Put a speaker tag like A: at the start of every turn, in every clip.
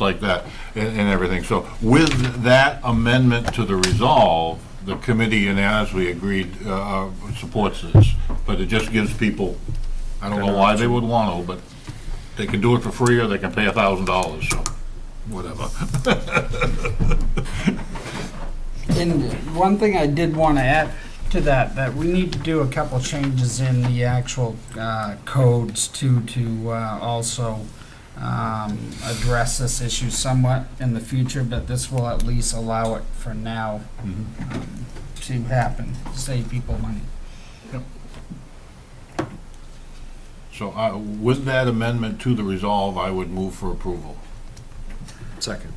A: like that and, and everything. So with that amendment to the resolve, the committee unanimously agreed, uh, uh, supports this. But it just gives people, I don't know why they would want to, but they can do it for free or they can pay a thousand dollars, so whatever.
B: And one thing I did want to add to that, that we need to do a couple changes in the actual uh, codes to, to uh, also um, address this issue somewhat in the future, but this will at least allow it for now um, to happen, save people money.
A: So uh, with that amendment to the resolve, I would move for approval.
C: Second.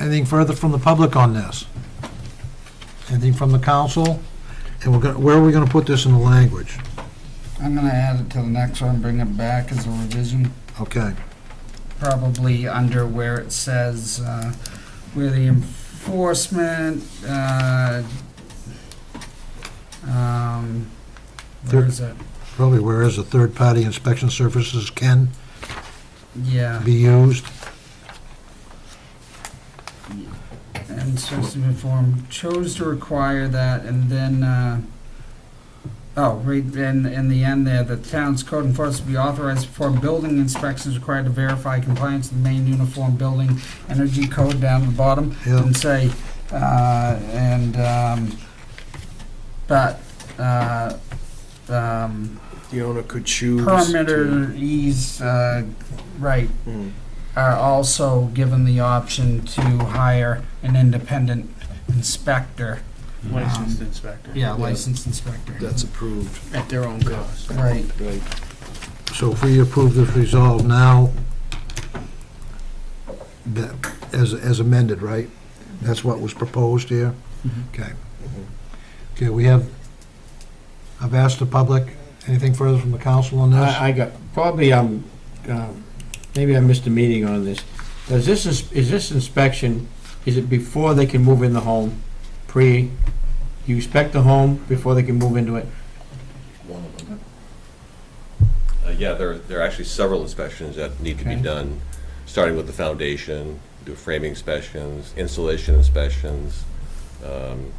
D: Anything further from the public on this? Anything from the council? And we're going, where are we going to put this in the language?
B: I'm going to add it to the next one, bring it back as a revision.
D: Okay,
B: probably under where it says, uh, where the enforcement, uh, um, where is it?
D: probably where is a third-party inspection services can
B: Yeah,
D: be used?
B: and supposed to inform, chose to require that, and then, uh, oh, right, in, in the end there, the town's code enforcement be authorized to perform building inspections required to verify compliance with the main uniform building energy code down at the bottom.
D: Yeah,
B: and say, uh, and, um, but, uh, um,
C: The owner could choose. to-
B: permitters, uh, right,
C: Mm.
B: are also given the option to hire an independent inspector.
E: licensed inspector.
B: Yeah, licensed inspector.
C: That's approved,
E: At their own cost.
B: Right,
C: right?
D: so if we approve this resolve now, that, as, as amended, right? That's what was proposed here? Okay. Okay, we have, I've asked the public, anything further from the council on this?
F: I I got, probably I'm, um, maybe I missed a meeting on this. Does this, ins- is this inspection, is it before they can move in the home? Pre, you inspect the home before they can move into it?
G: one of them. Uh, Yeah, there, there are actually several inspections that need to be
F: Okay.
G: done, starting with the foundation, do framing inspections, insulation inspections, um,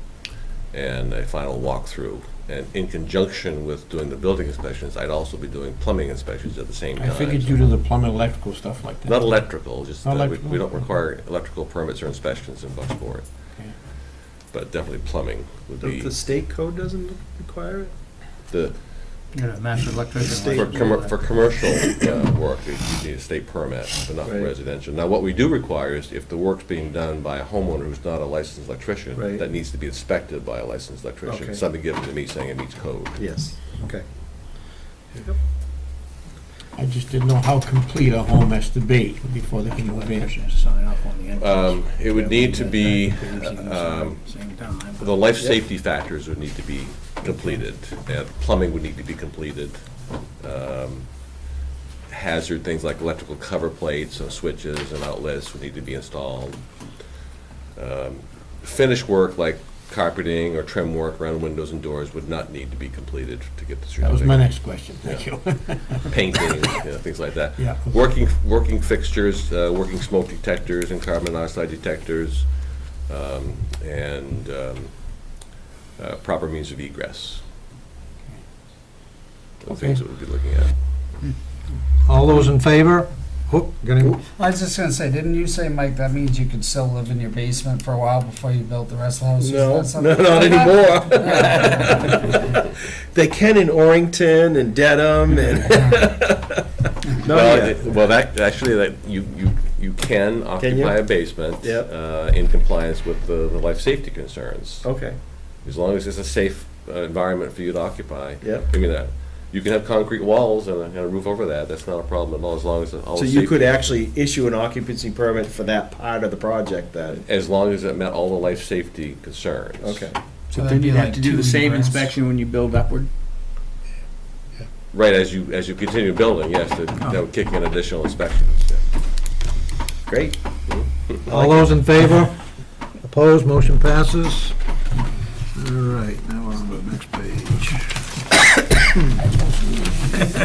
G: and a final walkthrough. And in conjunction with doing the building inspections, I'd also be doing plumbing inspections at the same time.
F: I figured due to the plumbing, electrical stuff like that.
G: Not electrical, just
F: Not
G: that we-
F: electrical?
G: we don't require electrical permits or inspections in Bucksport.
F: Okay.
G: But definitely plumbing would
C: The
G: be
C: the state code doesn't require it?
G: the,
E: Yeah, master
C: State-
G: For,
C: Yeah.
G: commer- for commercial uh, work, you you need a state permit, but not for
C: Right.
G: residential. Now, what we do require is if the work's being done by a homeowner who's not a licensed electrician,
C: Right.
G: that needs to be inspected by a licensed
C: Okay.
G: electrician, something given to me saying it meets code.
C: Yes, okay.
F: I just didn't know how complete a home has to be before they can move in.
E: Sign off on the entrance.
C: Uh,
G: Um, It would need to be, um,
E: Same time.
G: the life safety factors would need to be completed, and plumbing would need to be completed. Um, Hazard things like electrical cover plates and switches and outlets would need to be installed. Um, Finish work like carpeting or trim work around windows and doors would not need to be completed to get the certificate.
F: That was my next question, thank you.
G: Painting, you know, things like that.
F: Yeah.
G: Working, working fixtures, uh, working smoke detectors and carbon monoxide detectors, um, and um, uh, proper means of egress. The things that we'll be looking at.
D: All those in favor? Whoop, got any-
B: I was just gonna say, didn't you say, Mike, that means you could still live in your basement for a while before you built the rest of the house? Is
C: No,
B: that something
C: no, not
B: like that?
C: anymore. They can in Orrington and Dedham and. Not
G: Well,
C: yet.
G: it- well, that, actually, that, you, you, you can occupy a basement.
C: Yep. Oh.
G: uh, In compliance with the, the life safety concerns.
C: Okay,
G: As long as it's a safe uh, environment for you to occupy.
C: Yep.
G: I mean, that, you can have concrete walls and a, and a roof over that, that's not a problem at all, as long as it all
C: so
G: is
C: you
G: safe.
C: could actually issue an occupancy permit for that part of the project then?
G: As long as it met all the life safety concerns.
C: Okay.
E: But
B: So that'd
E: then
B: be
E: you'd
B: like
E: have to do
B: two
E: the same
B: egress.
E: inspection when you build upward.
G: Right, as you, as you continue building, yes, that, that would kick in additional inspections, yeah.
C: Great.
D: All those in favor? Opposed, motion passes. All right, now we're on to the next page.